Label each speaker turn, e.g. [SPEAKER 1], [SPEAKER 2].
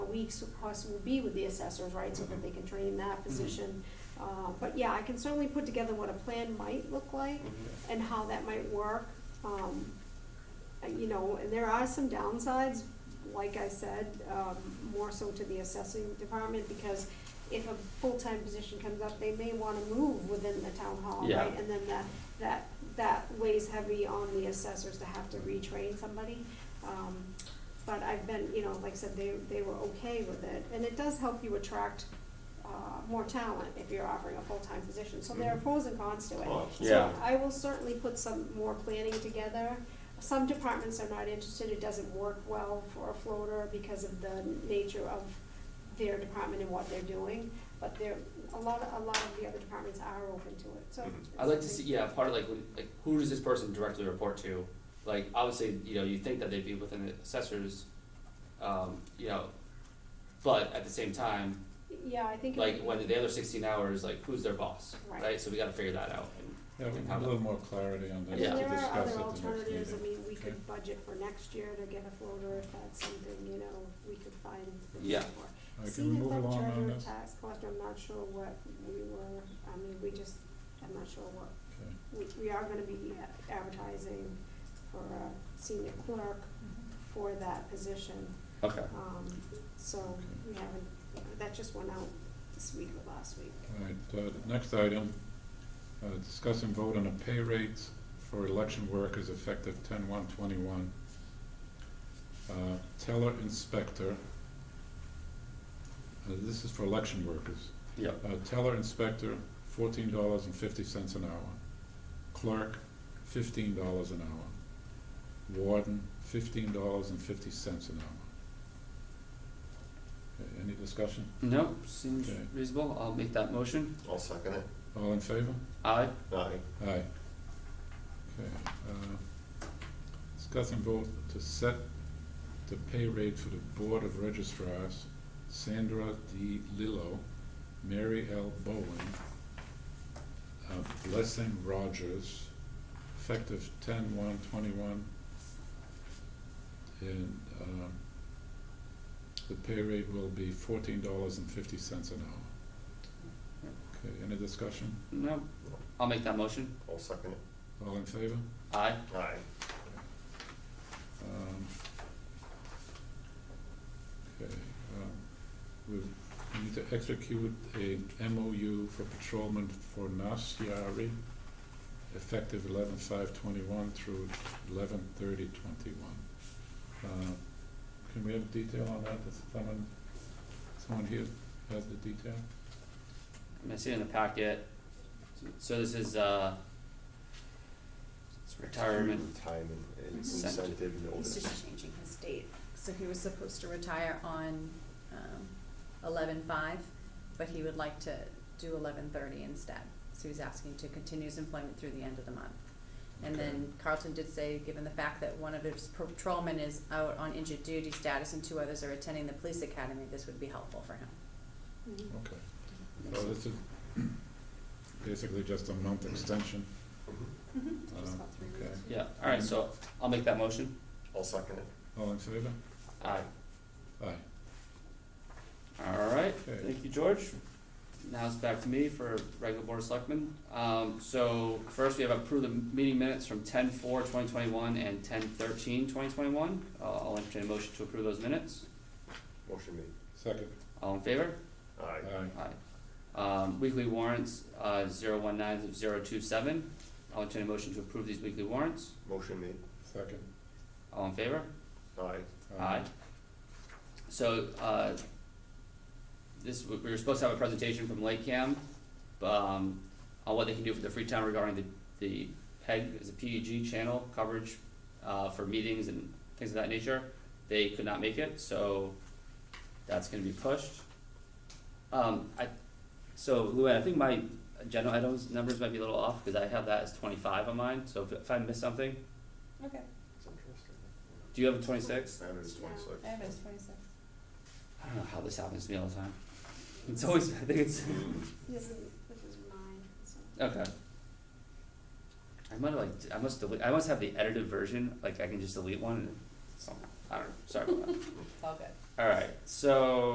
[SPEAKER 1] weeks us will be with the assessors, right, so that they can train that position. Uh, But yeah, I can certainly put together what a plan might look like and how that might work. Um, uh, You know, and there are some downsides, like I said, um, more so to the assessing department, because if a full-time position comes up, they may wanna move within the town hall,
[SPEAKER 2] Yeah.
[SPEAKER 1] right? And then that, that, that weighs heavy on the assessors to have to retrain somebody. Um, But I've been, you know, like I said, they, they were okay with it, and it does help you attract, uh, more talent if you're offering a full-time position, so there are
[SPEAKER 2] Mhm.
[SPEAKER 1] pros and cons to it.
[SPEAKER 3] Oh,
[SPEAKER 1] So
[SPEAKER 2] Yeah.
[SPEAKER 1] I will certainly put some more planning together. Some departments are not interested, it doesn't work well for a floater because of the nature of their department and what they're doing. But there, a lot, a lot of the other departments are open to it, so.
[SPEAKER 3] Mhm.
[SPEAKER 1] it's
[SPEAKER 2] I'd like to see,
[SPEAKER 1] something-
[SPEAKER 2] yeah, part of like, when- like, who does this person directly report to? Like, obviously, you know, you think that they'd be within the assessors, um, you know, but at the same time,
[SPEAKER 1] Yeah, I think. it
[SPEAKER 2] like,
[SPEAKER 1] would
[SPEAKER 2] when
[SPEAKER 1] be-
[SPEAKER 2] the other sixteen hours, like, who's their boss,
[SPEAKER 1] Right.
[SPEAKER 2] right? So we gotta figure that out and,
[SPEAKER 4] Yeah, we
[SPEAKER 2] and
[SPEAKER 4] need
[SPEAKER 2] how
[SPEAKER 4] a
[SPEAKER 2] that-
[SPEAKER 4] little more clarity on
[SPEAKER 1] I
[SPEAKER 4] this
[SPEAKER 1] mean,
[SPEAKER 2] Yeah.
[SPEAKER 4] to
[SPEAKER 1] there are
[SPEAKER 4] discuss
[SPEAKER 1] other
[SPEAKER 4] at the next
[SPEAKER 1] alternatives, I
[SPEAKER 4] meeting.
[SPEAKER 1] mean, we
[SPEAKER 4] Okay.
[SPEAKER 1] could budget for next year to get a floater if that's something, you know, we could find. the money
[SPEAKER 2] Yeah.
[SPEAKER 1] for.
[SPEAKER 4] All right,
[SPEAKER 1] See
[SPEAKER 4] Can we
[SPEAKER 1] the
[SPEAKER 4] move
[SPEAKER 1] clerk
[SPEAKER 4] along on
[SPEAKER 1] treasurer
[SPEAKER 4] this?
[SPEAKER 1] tax collector, I'm not sure what we were, I mean, we just, I'm not sure what,
[SPEAKER 4] Okay.
[SPEAKER 1] we, we are gonna be advertising for a senior clerk for that position.
[SPEAKER 2] okay,
[SPEAKER 1] Um, so we haven't, that just went out this week or last week.
[SPEAKER 4] All right, uh, the next item, uh, discuss and vote on the pay rates for election workers effective ten one twenty-one. Uh, teller inspector. Uh, this is for election workers.
[SPEAKER 2] yeah,
[SPEAKER 4] Uh, teller inspector, fourteen dollars and fifty cents an hour. Clerk, fifteen dollars an hour. Warden, fifteen dollars and fifty cents an hour. Okay, Any discussion?
[SPEAKER 2] no, seems
[SPEAKER 4] Okay.
[SPEAKER 2] reasonable, I'll make that motion,
[SPEAKER 3] I'll second it.
[SPEAKER 4] All in favor?
[SPEAKER 2] aye,
[SPEAKER 3] Aye.
[SPEAKER 4] Aye. Okay, uh, discuss and vote to set the pay rate for the Board of Registrars, Sandra D. Lillo, Mary L. Bowen, uh, Blessing Rogers, effective ten one twenty-one. And, um, the pay rate will be fourteen dollars and fifty cents an hour. Okay, any discussion?
[SPEAKER 2] no, I'll make that motion,
[SPEAKER 3] I'll second it.
[SPEAKER 4] All in favor?
[SPEAKER 2] aye,
[SPEAKER 3] Aye.
[SPEAKER 4] Um, Okay, um, we need to execute a MOU for patrolman for Nasiari, effective eleven five twenty-one through eleven thirty twenty-one. Uh, Can we have detail on that? Does someone, someone here has the detail?
[SPEAKER 2] I'm gonna see it in the packet. So this is, uh, it's retirement,
[SPEAKER 3] Retirement and
[SPEAKER 2] Incentive.
[SPEAKER 3] incentive
[SPEAKER 5] He's
[SPEAKER 3] notice.
[SPEAKER 5] just changing his date, so he was supposed to retire on, um, eleven five, but he would like to do eleven thirty instead. So he's asking to continue his employment through the end of the month. And then Carlton did say, given the fact that one of his patrolmen is out on injured duty status and two others are attending the police academy, this would be helpful for him.
[SPEAKER 1] Mhm.
[SPEAKER 4] Okay, so this is basically just a month extension.
[SPEAKER 3] Mm-hmm.
[SPEAKER 1] Just
[SPEAKER 4] Uh,
[SPEAKER 1] about three
[SPEAKER 4] okay.
[SPEAKER 1] weeks.
[SPEAKER 2] yeah, alright, so I'll make that motion,
[SPEAKER 3] I'll second it.
[SPEAKER 4] All in favor?
[SPEAKER 2] aye.
[SPEAKER 4] Aye.
[SPEAKER 2] Alright,
[SPEAKER 4] Okay.
[SPEAKER 2] thank you, George. Now it's back to me for regular board of selectmen. Um, so first we have approved the meeting minutes from 10-4-2021 and 10-13-2021. Uh, I'll entertain a motion to approve those minutes.
[SPEAKER 3] Motion made.
[SPEAKER 4] Second.
[SPEAKER 2] All in favor?
[SPEAKER 3] Aye.
[SPEAKER 4] Aye.
[SPEAKER 2] Aye. Um, weekly warrants, uh, zero one nine zero two seven. I'll entertain a motion to approve these weekly warrants.
[SPEAKER 3] Motion made.
[SPEAKER 4] Second.
[SPEAKER 2] All in favor?
[SPEAKER 3] Aye.
[SPEAKER 2] Aye. So, uh, this, we were supposed to have a presentation from Lake Cam, um, on what they can do for the Freetown regarding the, the PEG, is a PEG channel coverage, uh, for meetings and things of that nature. They could not make it, so that's gonna be pushed. Um, I, so Luann, I think my agenda items, numbers might be a little off, cause I have that as twenty-five on mine, so if, if I miss something,
[SPEAKER 5] Okay,
[SPEAKER 3] It's interesting.
[SPEAKER 2] do you have a twenty-six?
[SPEAKER 3] Standard is twenty-six.
[SPEAKER 5] have it as twenty-six.
[SPEAKER 2] I don't know how this happens to me all the time. It's always, I think it's,
[SPEAKER 1] This is, this is mine, so.
[SPEAKER 2] okay. I might have like, I must delete, I must have the edited version, like I can just delete one and something, I don't know, sorry about that.
[SPEAKER 5] It's all good.
[SPEAKER 2] All right, so